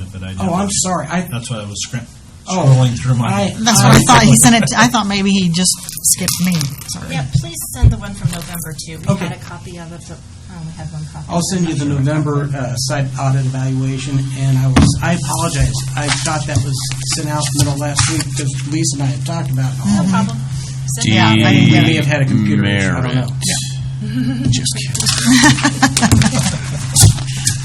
I did. Oh, I'm sorry. I, That's why I was scrim- Oh, scrolling through I, my. That's what I thought. He sent it, to- I thought maybe he just skipped me. Sorry. Yeah, please send the one from November too. We Okay. Oh. had a copy of it, but I only had one copy. I'll send you the November uh, site audit evaluation, and I was, I apologize. I thought that was sent out middle of last week because Lisa and I had talked about it. No all week. problem. Send it. Yeah, I We didn't may get have it. had a computer issue. I don't know. Merit. Just kidding.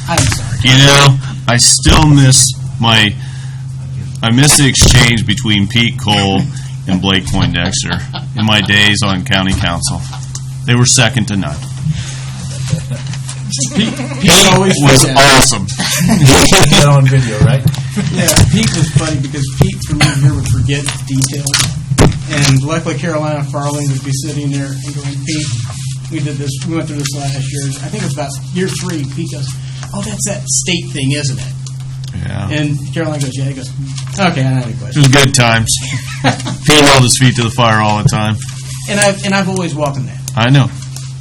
I'm sorry. You know, I still miss my, I miss the exchange between Pete Cole and Blake Poindexter in my days on county council. They were second to none. Pete Pete always was did that. awesome. That on video, right? Yeah, Pete was funny because Pete from year to year would forget details. And luckily Carolina Farling would be sitting there and going, Pete, we did this, we went through this last year. I think it was about year three. Pete goes, oh, that's that state thing, isn't it? Yeah, And Caroline goes, yeah. He goes, okay, I don't have any it questions. was good times. Pete held his feet to the fire all the time. And I've, and I've always welcomed that. I know.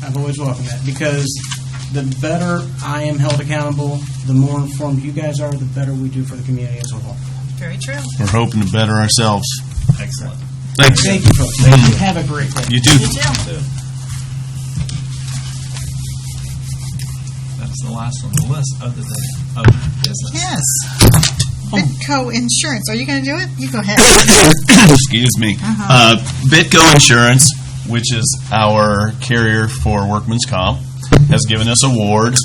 I've always welcomed that because the better I am held accountable, the more informed you guys are, the better we do for the community as a whole. Very true. We're hoping to better ourselves. Excellent. Thanks. Thank you, folks. Thank you. Have a great day. You too. You too. That's the last on the list, other than oh, other business. Yes. Bitco Insurance. Are you going to do it? You go ahead. excuse me, Uh-huh. uh, Bitco Insurance, which is our carrier for workman's comp, has given us awards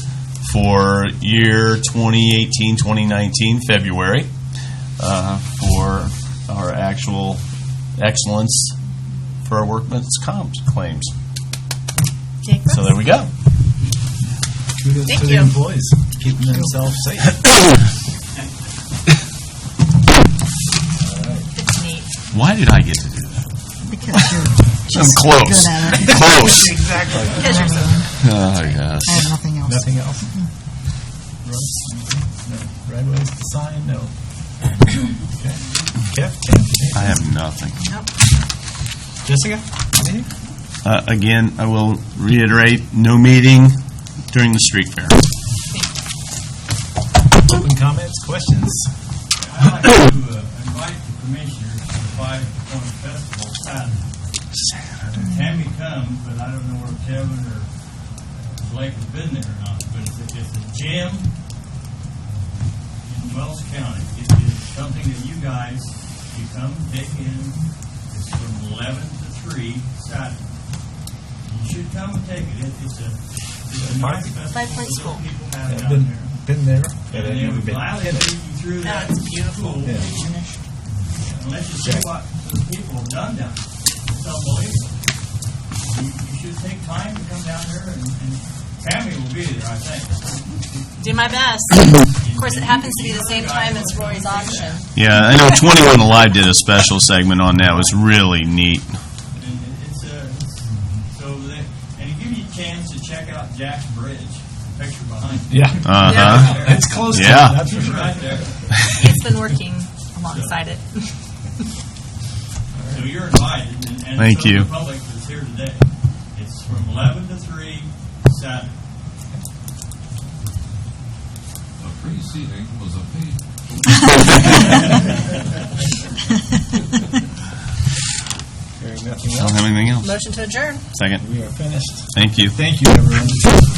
for year 2018, 2019, February, uh, for our actual excellence for our workman's comp claims. Jake, So there we go. Kudos Thank to the you. employees, keeping themselves safe. it's neat. Why did I get to do that? Because you're I'm just close. good at it. Close. Because you're so Oh, yes. I have nothing else. Nothing else? Roads? No. Right ways to sign? No. Okay. Kev? I have nothing. Jessica? Anything? Uh, again, I will reiterate, no meeting during the street fair. Open comments, questions? I'd like to uh, invite the commissioners to the Five Point Festival Saturday. Tammy comes, but I don't know where Kevin or Blake have been there or not, but it's a- it's a gym in Wells County. It is something that you guys, you come dig in, it's from eleven to three Saturday. You should come and take it, It- it's a, it's a nice festival. Five Point School. People I've have down been, there. been there. but I've And they never would been. gladly lead you through that. That's beautiful. pool. Unless you see what the people have done down there. It's unbelievable. You, you should take time to come down here and, and Tammy will be there, I think. Do my best. Of course, it happens to be the same time as Rory's auction. Yeah, I know 21 Alive did a special segment on that. It was really neat. And it- it's, uh, it's- so they, and it gives you a chance to check out Jack's Bridge, the picture behind you. Yeah. Uh-huh. It's close to it, Yeah. that's for It's sure. right there. It's been working alongside it. So you're invited, and, and Thank so you. the public that's here today. It's from 11 to 3 Saturday. The preceding was a paid Hearing nothing I don't else, have anything else. Motion to adjourn. Second. we are finished. Thank you. Thank you, everyone.